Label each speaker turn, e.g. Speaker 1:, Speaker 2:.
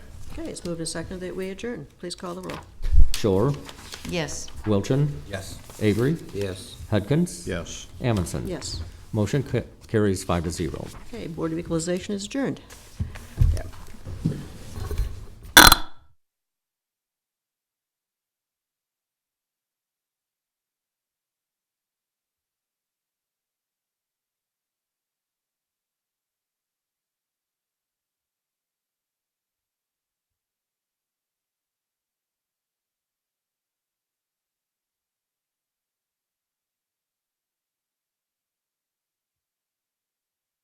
Speaker 1: Okay, it's moved and seconded that we adjourn. Please call the roll.
Speaker 2: Shore,
Speaker 3: Yes.
Speaker 2: Wilchin,
Speaker 4: Yes.
Speaker 2: Avery,
Speaker 4: Yes.
Speaker 2: Hudkins.
Speaker 5: yes.
Speaker 2: Amundson.
Speaker 1: Yes.
Speaker 2: Motion ca- carries five to zero.
Speaker 1: Okay, Board of Equalization is adjourned.